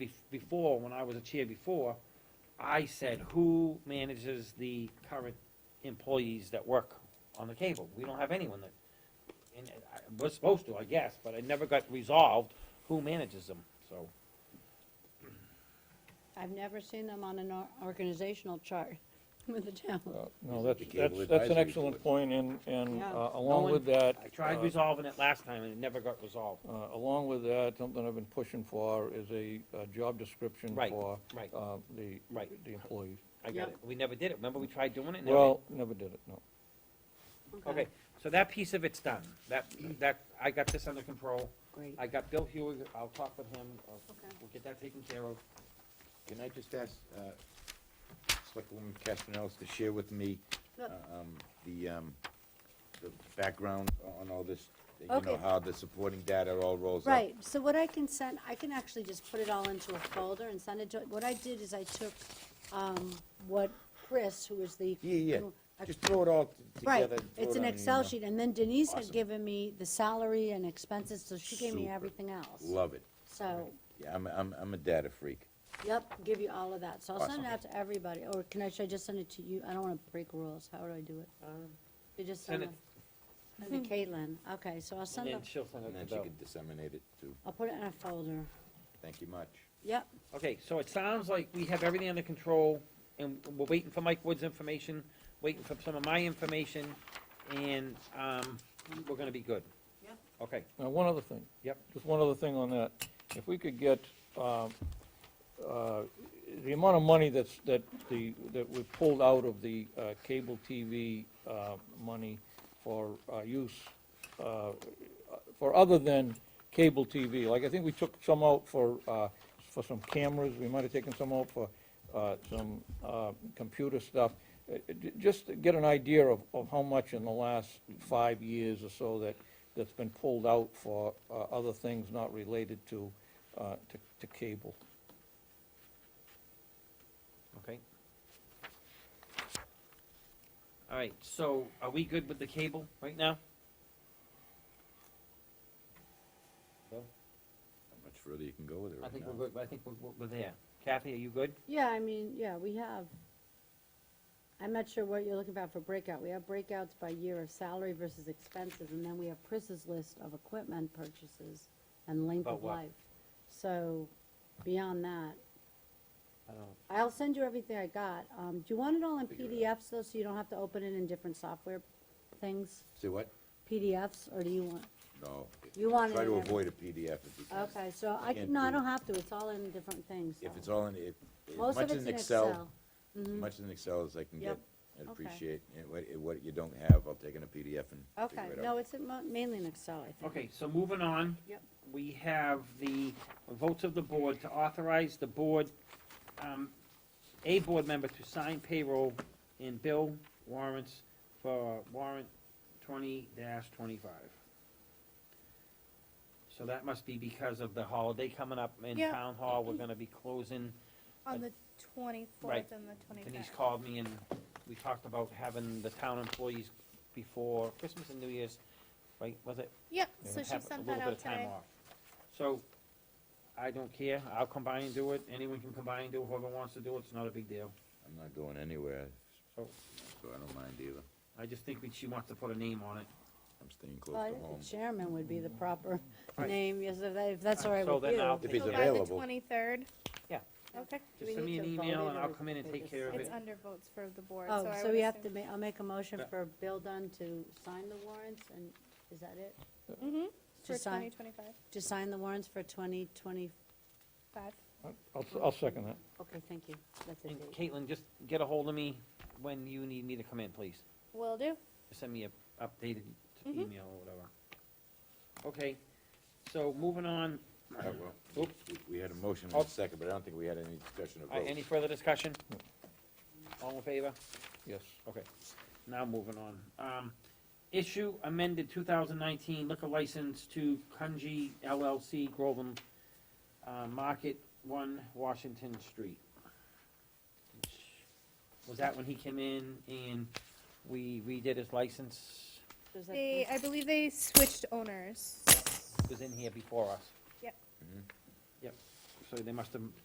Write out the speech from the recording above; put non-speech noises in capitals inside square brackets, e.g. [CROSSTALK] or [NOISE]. bef- before, when I was a chair before, I said, who manages the current employees that work on the cable? We don't have anyone that, and I was supposed to, I guess, but it never got resolved, who manages them, so. I've never seen them on an or- organizational chart [LAUGHS] with the town. Uh, No, that's, The Cable that's, that's an Advisory excellent point, and, and Yeah. uh, No along one- with that. I tried uh, resolving it last time and it never got resolved. uh, Along with that, something I've been pushing for is a, uh job description Right, for. right. uh, The, Right. the employees. I got Yeah. it, we never did it, remember we tried doing it? and never- Well, never did it, no. Okay, so that piece of it's done, that, that, I got this under control. Great. I got Bill Hewig, I'll talk with him, I'll- Okay. we'll get that taken care of. Can I just ask, uh, Selectwoman Castellanos to share with me, Look. um, the, um, the background on all this? You Okay. know, how the supporting data all rolls up? Right, so what I can send, I can actually just put it all into a folder and send it to, what I did is I took, um, what Chris, who is the. Yeah, who- yeah, just throw it all t- Right, together. throw it's it an on Excel email. sheet, and then Denise had Awesome. given me the salary and expenses, so she gave me Super. everything else. Love it, So, yeah, I'm, I'm, I'm a data freak. yep, give you all of that, so I'll send it Awesome. out to everybody, or can I, should I just send it to you? I don't wanna break rules, how do I do it? Um, You just Send send it, send it to Caitlin, okay, so I'll And send then it, she'll send And then it she to Bill. could disseminate it too, I'll put it in a folder, thank you much. yep, Okay, so it sounds like we have everything under control, and we're waiting for Mike Wood's information, waiting for some of my information, and, um, we're gonna be good. Yep. Okay, Now, one other thing. Yep. Just one other thing on that. If we could get, um, uh, the amount of money that's, that the, that we pulled out of the uh, cable TV uh, money for uh, use, uh, for other than cable TV, like I think we took some out for, uh, for some cameras, we might have taken some out for uh, some uh, computer stuff. Uh, j- Just to get an idea of, of how much in the last five years or so that, that's been pulled out for uh, other things not related to, uh, to to cable. okay. All right, so are we good with the cable right now? How much further you can go with it I right think now? we're good, I think we're, we're there. Kathy, are you good? yeah, I mean, yeah, we have. I'm not sure what you're looking about for breakout, we have breakouts by year of salary versus expenses, and then we have Chris's list of equipment purchases and length About of what? life. So, beyond that, I don't. I'll send you everything I got, um, do you want it all in Figure it PDFs though, so you don't have to open it in different software things? Say what? PDFs, or do you want, No. You want Try it to in every- avoid a PDF if you can. okay, so I, Can't can- no, I do- don't have to, it's all in different things. If so. it's all in, if, as Most of much it's in Excel, as Mhm. much in Excel as I can get, Yep. I'd Okay. appreciate, and what, and what you don't have, I'll take in a PDF and Okay, figure it no, out. it's in mo- mainly in Excel, I think. Okay, so moving on. Yep. We have the votes of the board to authorize the board, um, a board member to sign payroll and bill warrants for warrant twenty twenty-five. So that must be because of the holiday coming up in Yeah. town hall, we're gonna be closing. On the Right. twenty-fourth and the Denise twenty-fifth. called me and we talked about having the town employees before Christmas and New Year's, right, was it? Yep, Yeah. so she have a sent little that bit out of time today. off. So, I don't care, I'll come by and do it, anyone can come by and do it, whoever wants to do it, it's not a big deal. I'm not going anywhere, so So- I don't mind either. I just think that she wants to put a name on it. I'm staying Well, I close to think home. the chairman would be the proper Mm-hmm. Right. name, yes, if that- if that's all right So with then I'll you. If he's So by the available. twenty-third? Yeah. Okay, Do Just we send me need an to vote email it and or I'll is come in it and take just- care of it's it. under votes for the board, so I would Oh, assume. so we have to ma, I'll make a motion Yeah. for Bill Dunn to sign the warrants, and is that it? hmm To for sign- twenty twenty-five, To sign the warrants for twenty twenty, five. I'll, I'll second that. okay, thank you, that's a And date. Caitlin, just get a hold of me when you need me to come in, please. Will do. Send me a updated Mhm. email or whatever. Okay, so moving on, All right, well, Oop. we- We had a motion Oh. and a second, but I don't think we had any discussion of Uh, any vote. further discussion? All in favor? Yes. Okay, now moving on. Um, issue amended two thousand nineteen liquor license to Kunji LLC Groveland, uh, Market One, Washington Street. Was that when he came in and we redid his license? Does that- They, I believe they switched owners. It was in here before us. Yep. Mhm. Yep, so they must have